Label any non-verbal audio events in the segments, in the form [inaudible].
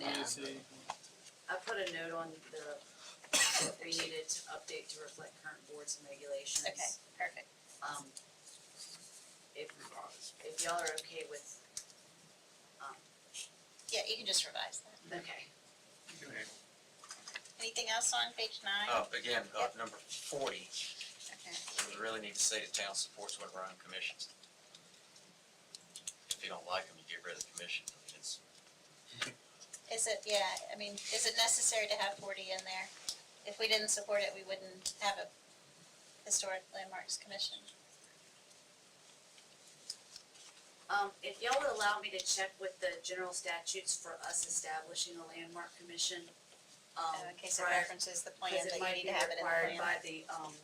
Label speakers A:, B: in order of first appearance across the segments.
A: Let me
B: Yeah.
A: see.
B: I put a note on the, that we needed to update to reflect current boards and regulations.
C: Okay, perfect.
B: Um, if, if y'all are okay with, um,
C: Yeah, you can just revise that.
B: okay.
A: You can handle
C: Anything else on page nine?
D: Uh, again, uh, number forty,
C: Okay.
D: we really need to say the town supports one of our own commissions. If you don't like them, you get rid of the commission, I mean, it's,
C: Is it, yeah, I mean, is it necessary to have forty in there? If we didn't support it, we wouldn't have a historic landmarks commission.
B: Um, if y'all would allow me to check with the general statutes for us establishing a landmark commission, um,
C: Uh, In case it
B: prior-
C: references the plan, that you need to have it in the
B: Because it might be required by
C: plan.
B: the, um,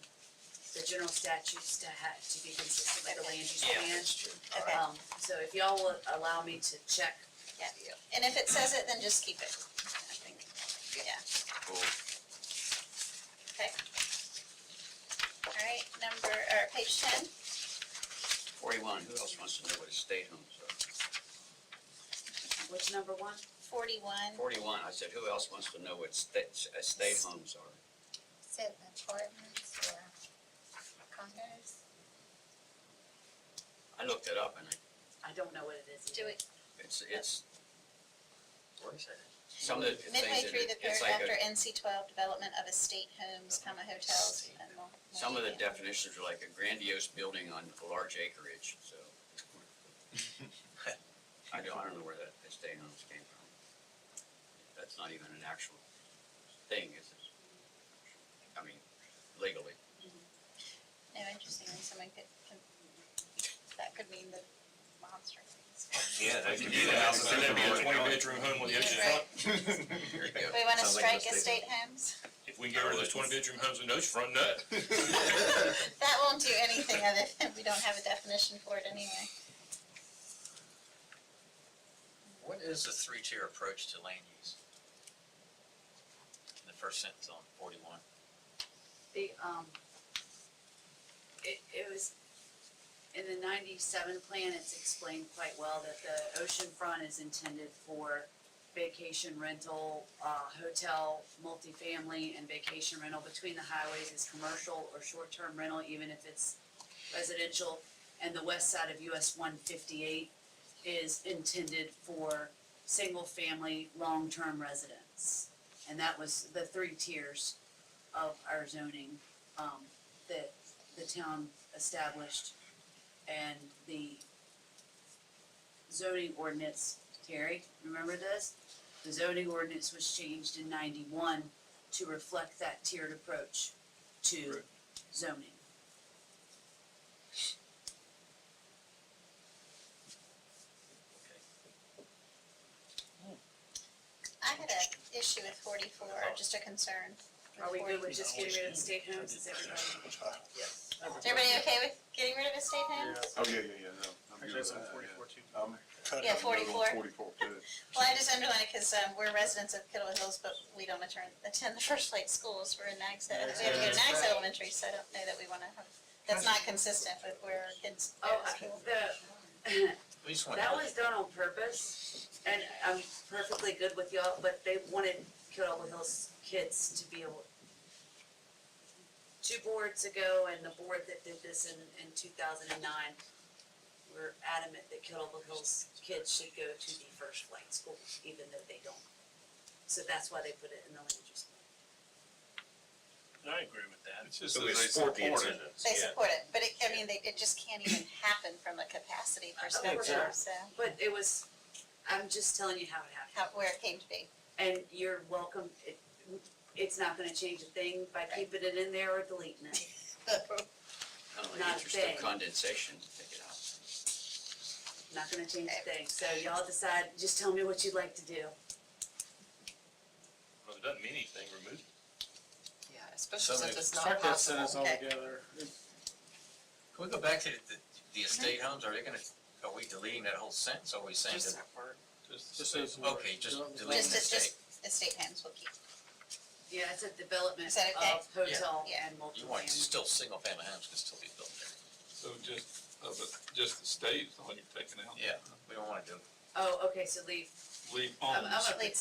B: the general statutes to have, to be consistent with the
C: Okay.
B: land use
D: yeah,
B: plan.
D: it's true.
C: Okay.
A: [laughs]
B: Um, so if y'all would allow me to check
C: And if it says it, then just keep it. I think. Yeah.
D: Cool.
C: All right, number, or page ten,
E: Forty-one, who else wants to know what estate homes are?
B: which number one?
C: forty-one,
E: Forty-one, I said, who else wants to know what estate, estate homes are?
F: Said apartments or condos?
E: I looked it up and it-
B: I don't know what it is.
C: do it
E: it's, it's,
D: What is that?
E: some of the things.
C: midway
E: that
C: through
E: it-
C: the
E: it's
C: paragraph
E: like
C: after
E: a-
C: NC twelve, development of estate homes, comma, hotels, and more. more
E: Some of the
C: detail.
E: definitions are like a grandiose building on a large acreage, so. I don't, I don't know where that estate homes came from. That's not even an actual thing, is it? I mean, legally.
C: No, interestingly, someone could, could, that could mean the monster things.
D: Yeah,
A: They could do the house, and then it'd be a twenty-bedroom home with the ocean front.
E: There you go.
C: We wanna
D: Sounds like
C: strike
D: a
C: estate
E: [laughs]
C: homes?
A: If we can get rid of those twenty-bedroom homes with an ocean front, nut. [laughs]
C: That won't do anything other than we don't have a definition for it anyway.
D: What is the three-tier approach to land use? The first sentence on forty-one.
B: The, um, it, it was, in the ninety-seven plan, it's explained quite well that the oceanfront is intended for vacation rental, uh, hotel, multifamily, and vacation rental between the highways is commercial or short-term rental, even if it's residential. And the west side of US one fifty-eight is intended for single-family, long-term residents. And that was the three tiers of our zoning, um, that the town established and the zoning ordinance, Terry, remember this? The zoning ordinance was changed in ninety-one to reflect that tiered approach to
A: Right.
B: zoning.
C: I had an issue with forty-four, just a concern. with
B: Are we
C: 40.
B: good with just getting rid of state homes, is everybody? Yes.
C: Is everybody okay with getting rid of estate homes?
G: Oh, yeah, yeah, yeah, no. I'm good with that, yeah. I'm cutting
C: Yeah,
G: a note
C: 44.
G: on Forty-four, too.
C: Well, I just underlined it because, um, we're residents of Kittle Hills, but we don't attend, attend the [laughs] first flight schools, we're in Nags, we have to go to Nags Elementary, so I don't know that we wanna have, that's not consistent with where our kids go
B: Oh,
C: to
B: I-
C: school.
B: the,
D: We just want.
B: That [laughs] was done on purpose, and I'm perfectly good with y'all, but they wanted Kyoto Hills kids to be able. Two boards ago, and the board that did this in, in two thousand and nine, were adamant that Kyoto Hills kids should go to the first flight school, even though they don't. So that's why they put it in the land use
A: I agree with that.
G: It's just
D: So
G: that
D: we
G: they
D: support
G: support
D: the
G: it.
D: incidents,
C: They
D: yeah.
C: support it, but it, I mean, they, it just can't even happen from a capacity perspective,
B: sure.
C: so,
B: plan. But it was, I'm just telling you how it happened.
C: how, where it came to be.
B: And you're welcome, it, it's not gonna change a thing by keeping it in there or deleting it.
E: I don't know,
B: Not
E: interest of
B: big.
E: condensation, take it out.
B: Not gonna change a thing, so y'all decide, just tell me what you'd like to do.
A: Well, it doesn't mean anything, remove it.
H: Yeah, especially since it's not
I: Strike
H: possible.
I: that sentence
C: Okay.
I: altogether.
D: Can we go back to the, the estate homes, are they gonna, are we deleting that whole sentence, or are we saying
H: Just
D: that?
H: that word.
I: Just say some
D: Okay,
I: words.
D: just
I: Don't-
D: delete
C: Just,
D: the
C: just,
D: estate.
C: estate homes will keep.
B: Yeah, it's a development
C: Is that okay?
B: of hotel
C: Yeah.
B: and multifamily.
D: You want, still, single-family homes can still be built there.
J: So just, uh, but just the state is all you're taking out?
D: Yeah. We don't wanna do
B: Oh, okay, so leave,
J: Leave
B: I'm,
J: homes.
B: I'm a big